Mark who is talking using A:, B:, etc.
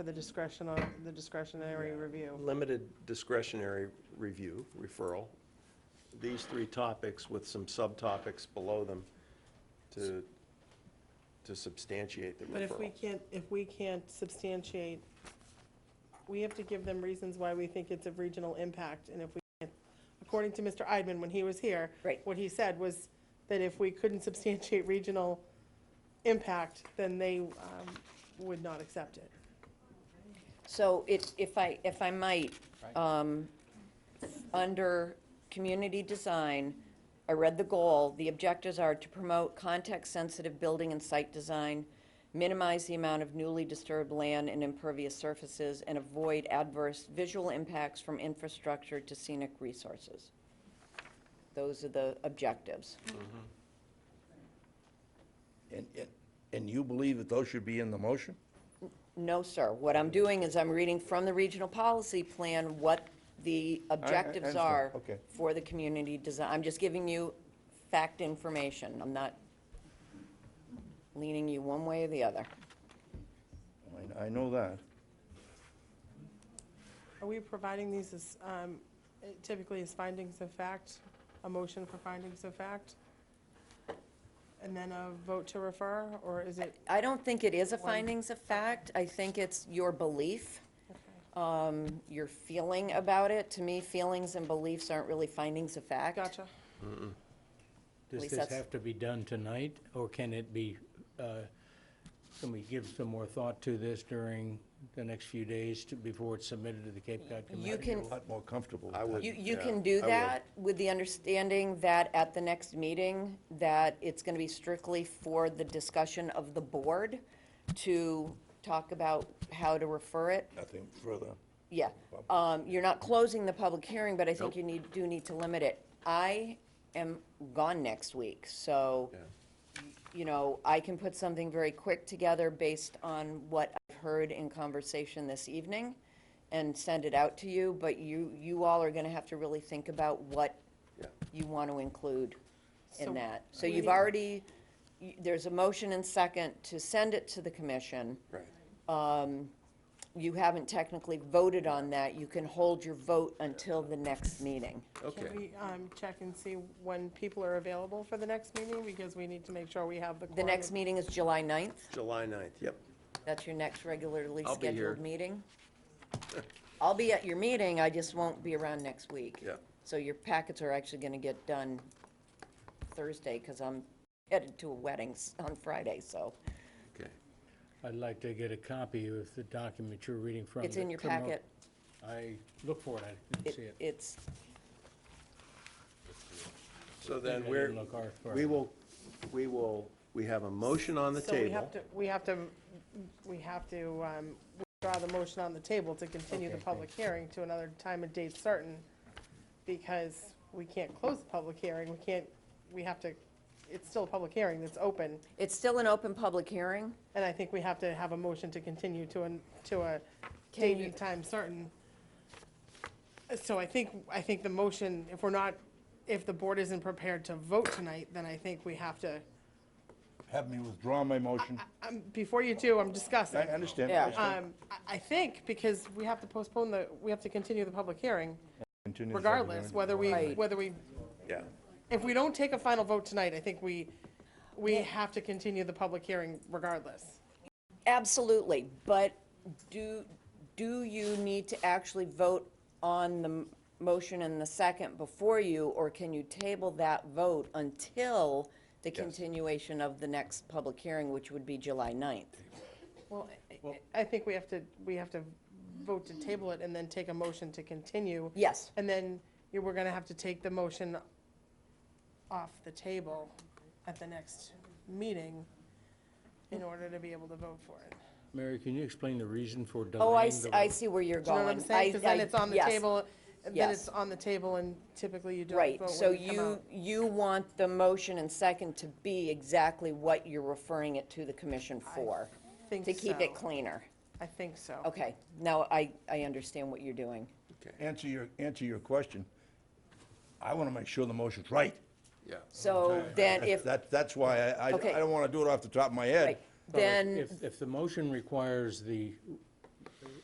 A: for the discretion on, the discretionary review.
B: Limited discretionary review, referral, these three topics with some subtopics below them to, to substantiate the
A: But if we
B: referral.
A: can't, if we can't substantiate, we have to give them reasons why we think it's of regional impact, and if we can't, according to Mr. Eidman, when he was here.
C: Right.
A: What he said was that if we couldn't substantiate regional impact, then they um, would not accept it.
C: So it, if I, if I might, um, under community design, I read the goal, the objectives are to promote context-sensitive building and site design, minimize the amount of newly disturbed land and impervious surfaces, and avoid adverse visual impacts from infrastructure to scenic resources. Those are the objectives.
D: And, and- and you believe that those should be in the motion?
C: No, sir. What I'm doing is I'm reading from the regional policy plan what the objectives
D: understand.
C: are
D: Okay.
C: for the community design. I'm just giving you fact information. I'm not leaning you one way or the other.
D: I, I know that.
A: Are we providing these as, um, typically as findings of fact, a motion for findings of fact? And then a vote to refer, or is it,
C: I don't think it is a findings of fact. I think it's your belief, um, your feeling about it. To me, feelings and beliefs aren't really findings of fact.
A: gotcha,
E: Does
C: least
E: this
C: that's-
E: have to be done tonight, or can it be, uh, can we give some more thought to this during the next few days to- before it's submitted to the Cape Cod
C: You
E: Commission?
C: can,
D: A lot more comfortable
B: I
D: with
B: would-
D: that.
C: You, you
B: yeah,
C: can do
B: I will.
C: that with the understanding that at the next meeting, that it's gonna be strictly for the discussion of the board to talk about how to refer it.
D: Nothing further.
C: Yeah, um, you're not closing the public hearing, but I think you need, do need to limit it. I am gone next week, so, you know, I can put something very quick together based on what I've heard in conversation this evening and send it out to you, but you, you all are gonna have to really think about what
B: Yeah.
C: you want to include
A: So-
C: in that. So you've already, y- there's a motion and second to send it to the commission
B: Right.
C: you haven't technically voted on that, you can hold your vote until the next meeting.
B: Okay.
A: can we, um, check and see when people are available for the next meeting, because we need to make sure we have the.
C: The
A: quorum.
C: next meeting is July 9th.
B: July 9th, yep.
C: That's your next regularly
B: I'll be here.
C: scheduled meeting. I'll be at your meeting, I just won't be around next week.
B: Yeah.
C: So your packets are actually going to get done Thursday, because I'm headed to a wedding s- on Friday, so
B: Okay.
E: I'd like to get a copy of the document you're reading from.
C: it's
E: the
C: in your
E: criminal-
C: packet.
E: I look for it, I didn't
C: It-
E: see it.
C: It's,
B: So then
E: I
B: we're,
E: didn't look hard for
B: we
E: it.
B: will, we will, we have a motion on the
A: So we
B: table.
A: have to, we have to, we have to, um, withdraw the motion on the table to continue the
E: Okay,
A: public hearing to another time and date certain, because we can't close the public hearing, we can't, we have to, it's still a public hearing that's open.
C: it's still an open public hearing.
A: And I think we have to have a motion to continue to an, to a date and time certain. So I think, I think the motion, if we're not, if the board isn't prepared to vote tonight, then I think we have to,
D: Have me withdraw my motion.
A: um, before you do, I'm
D: I
A: discussing.
D: understand. I
C: Yeah.
D: understand.
A: Um, I, I think, because we have to postpone the, we have to continue the public hearing
D: Continue the public
A: regardless,
D: hearing.
A: whether we,
C: Right.
A: whether we,
B: Yeah.
A: if we don't take a final vote tonight, I think we, we have to continue the public hearing regardless.
C: Absolutely, but do, do you need to actually vote on the m- motion and the second before you, or can you table that vote until the continuation of the next public hearing, which would be July 9th?
A: Well, I- I think we have to, we have to vote to table it and then take a motion to continue.
C: Yes.
A: And then you- we're gonna have to take the motion off the table at the next meeting in order to be able to vote for it.
E: Mary, can you explain the reason for delaying
C: Oh, I,
E: the
C: s- I
E: vote?
C: see where you're
A: Do you
C: going.
A: know what I'm saying? Because then
C: I- I-
A: it's on the
C: yes,
A: table, then
C: yes.
A: it's on the table, and typically you don't
C: Right,
A: vote
C: so
A: when you come
C: you,
A: out.
C: you want the motion and second to be exactly what you're referring it to the commission for?
A: think
C: To keep it
A: so.
C: cleaner.
A: I think so.
C: Okay, now I, I understand what you're doing.
D: Answer your, answer your question. I want to make sure the motion's right.
B: Yeah.
C: So then if,
D: That, that's why I, I I
C: Okay.
D: don't want to do it off the top of my head.
C: right, then,
E: If, if the motion requires the